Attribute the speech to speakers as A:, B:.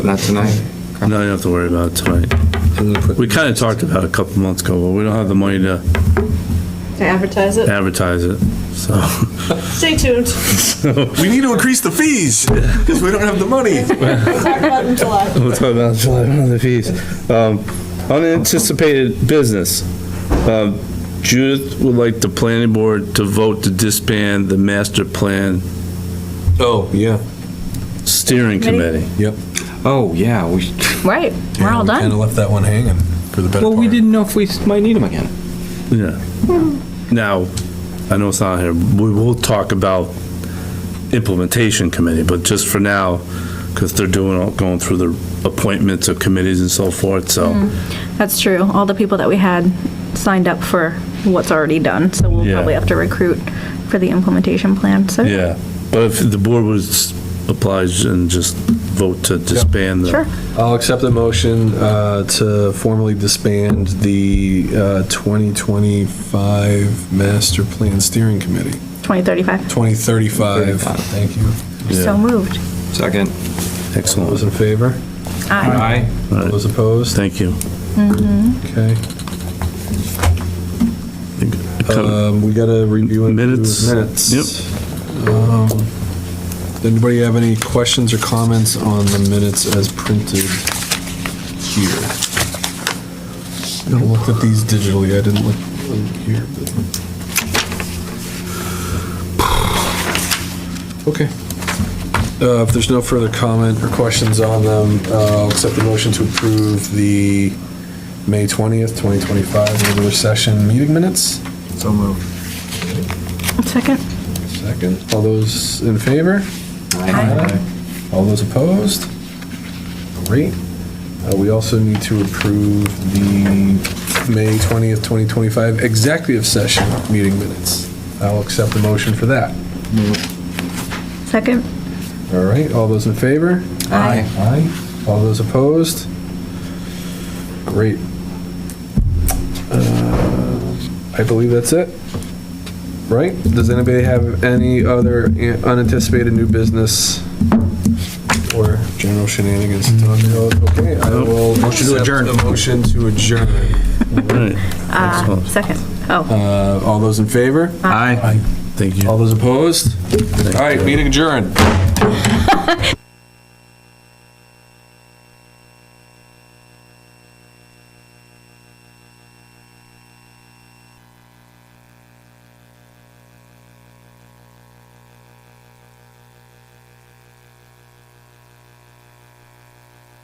A: Not tonight.
B: No, you don't have to worry about it tonight. We kind of talked about it a couple months ago, but we don't have the money to
C: To advertise it?
B: advertise it, so.
C: Stay tuned.
D: We need to increase the fees because we don't have the money.
C: Talk about it in July.
B: We'll talk about July one of the fees. Um, Unanticipated business. Um, Judith would like the planning board to vote to disband the master plan
D: Oh, yeah.
B: steering committee.
A: Oh, yeah, we,
E: Right, we're all
D: Kind
E: done.
D: of left that one hanging for the better
A: well, we
D: part.
A: didn't know if we might need them again.
B: Yeah. Now, I know it's not here, we will talk about implementation committee, but just for now, because they're doing, all- going through the appointments of committees and so forth,
E: Mm-hmm.
B: so.
E: That's true. All the people that we had signed up for what's already done, so we'll
B: Yeah.
E: probably have to recruit for the implementation plan, so.
B: Yeah, but if the board was obliged and just vote to disband
E: Sure.
B: the,
F: I'll accept the motion uh, to formally disband the uh, 2025 Master Plan Steering Committee.
E: 2035.
F: 2035, thank you.
E: So moved.
A: Second.
F: All
B: excellent,
F: those in favor?
E: Aye.
A: Aye.
F: All those opposed?
B: thank you.
F: Okay. Um, We got to review and approve
B: Minutes.
F: minutes.
B: Yep.
F: Um, Does anybody have any questions or comments on the minutes as printed here? I looked at these digitally, I didn't look look here. but- Okay. Uh, If there's no further comment or questions on them, uh, I'll accept the motion to approve the May 20th, 2025 regular session meeting minutes. So moved.
E: Second.
F: Second. All those in favor? All those opposed? Great. Uh, We also need to approve the May 20th, 2025 executive session meeting minutes. I'll accept the motion for that.
E: Second.
F: All right, all those in favor?
E: Aye.
F: Aye. All those opposed? Great. Uh, I believe that's it. Right? Does anybody have any other unanticipated new business or general shenanigans? Okay, I will. Motion to adjourn. A motion to adjourn.
B: All right,
E: Uh,
B: excellent.
E: Second. Oh,
F: Uh, All those in favor?
A: Aye.
B: Thank you.
F: All those opposed? All right, meeting adjourned.